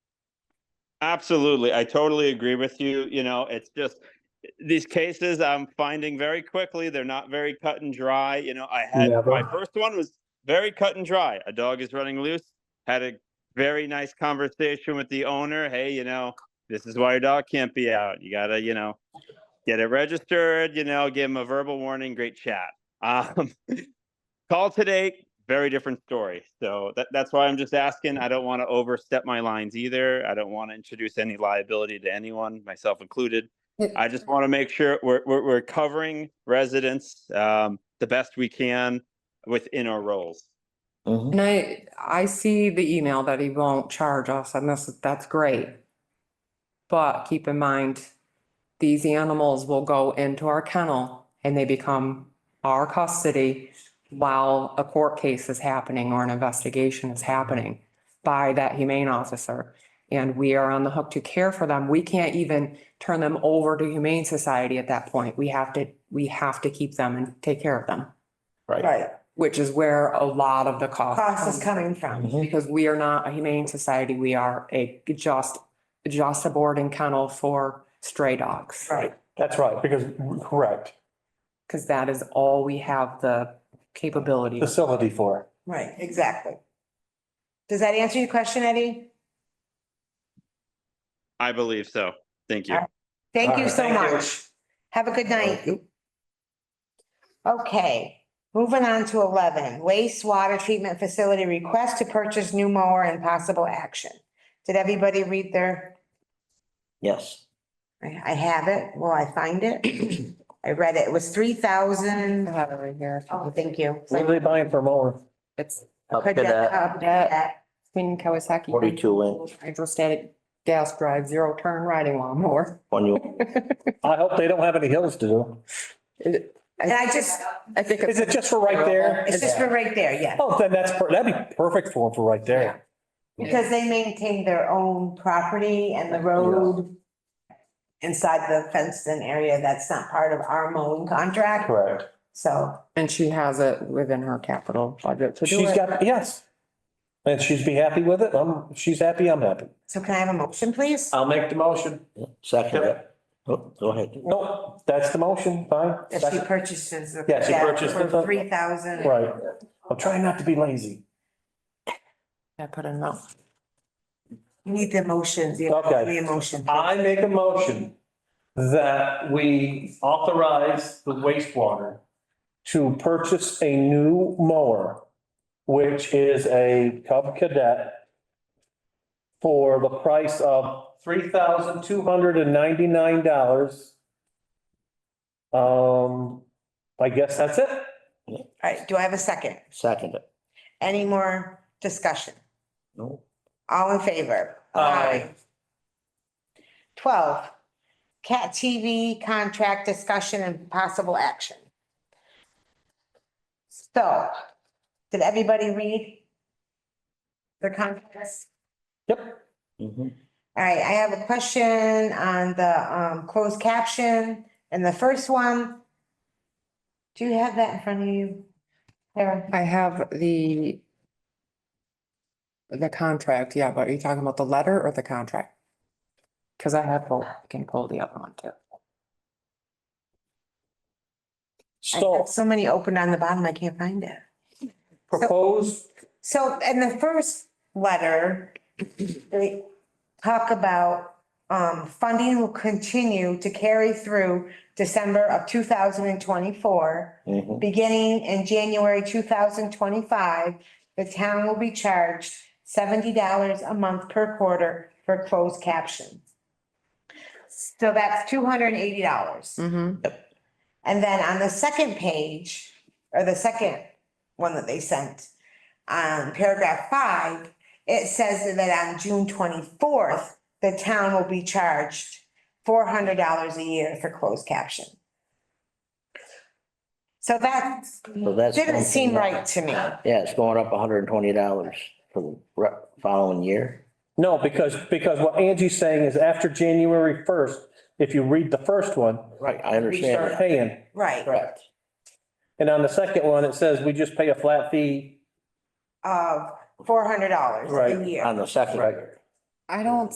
Absolutely. I totally agree with you. You know, it's just these cases I'm finding very quickly, they're not very cut and dry. You know, I had my Never. first one was very cut and dry. A dog is running loose. Had a very nice conversation with the owner. Hey, you know, this is why your dog can't be out. You gotta, you know, get it registered, you know, give him a verbal warning. Great chat. Um, call today, very different story. So that, that's why I'm just asking. I don't want to overstep my lines either. I don't want to introduce any liability to anyone, myself included. I just want to make sure we're, we're, we're covering residents, um, the best we can within our roles. Mhm. And I, I see the email that he won't charge us and that's, that's great. But keep in mind, these animals will go into our kennel and they become our custody while a court case is happening or an investigation is happening by that humane officer. And we are on the hook to care for them. We can't even turn them over to Humane Society at that point. We have to, we have to keep them and take care of them Right. Right, which is where a lot of the cost. cost comes is coming from. Mhm. Because we are not a humane society, we are a just, just a boarding kennel for stray dogs. Right, That's right, because, correct, Because that is all we have the capability. facility for. right, exactly. Does that answer your question, Eddie? I believe so. Thank you. All Thank All you right. so Thank you. much. Have a good night. Okay, moving on to eleven, wastewater treatment facility request to purchase new mower and possible action. Did everybody read their, Yes. I I have it, will I find it? I read it, it was three I thousand. have it right here. Oh, thank you. What are they buying for more? It's Up to Could that- that up to that. Queen Kawasaki. forty-two inch, Hydrostatic gas drive, zero turn riding lawnmower. when you, I hope they don't have any hills to do. And I just, I think Is it's it just for right there? it's just for right there, yeah, Oh, then that's, per- that'd be perfect for them for right there. because they maintain their own property and the road inside the fenced in area, that's not part of our mowing contract. Correct. So, and she has it within her capital budget to do She's it. got, yes. And she's be happy with it. Um, if she's happy, I'm happy. so can I have a motion, please? I'll make the motion. second it. Oh, go ahead. Nope, that's the motion, fine. If she purchases. the- Yeah, she purchased it, For but- three thousand. Right. I'm trying not to be lazy. I put it up. You need the motions, you Okay. Uh, have the emotion. I make a motion that we authorize the wastewater to purchase a new mower, which is a Cub Cadet for the price of three thousand two hundred and ninety-nine dollars. Um, I guess that's it. All right, do I have a second? Second it. Any more discussion? No, All in favor? Aye. Twelve, cat TV contract discussion and possible action. So, did everybody read their contracts? Yep. mhm. All right, I have a question on the um closed caption and the first one. Do you have that in front of you? There, I have the the contract, yeah, but are you talking about the letter or the contract? Cause I have, both. I can pull the other one too. I So have so many open on the bottom, I can't find it. proposed, So in the first letter, they talk about um funding will continue to carry through December of two thousand and twenty-four. Mhm. Beginning in January two thousand twenty-five, the town will be charged seventy dollars a month per quarter for closed captions. So that's two hundred and eighty dollars. Mm-hmm. And then on the second page, or the second one that they sent, um, paragraph five, it says that on June twenty-fourth, the town will be charged four hundred dollars a year for closed caption. So that So that's didn't one seem thing that- right to me. Yeah, it's going up hundred and twenty dollars for the re- following year. no, because, because what Angie's saying is after January first, if you read the first one, Right, I we understand start that. paying. Right, Correct. And on the second one, it says we just pay a flat fee. of four hundred dollars Right, a year. On the second Right. year. I don't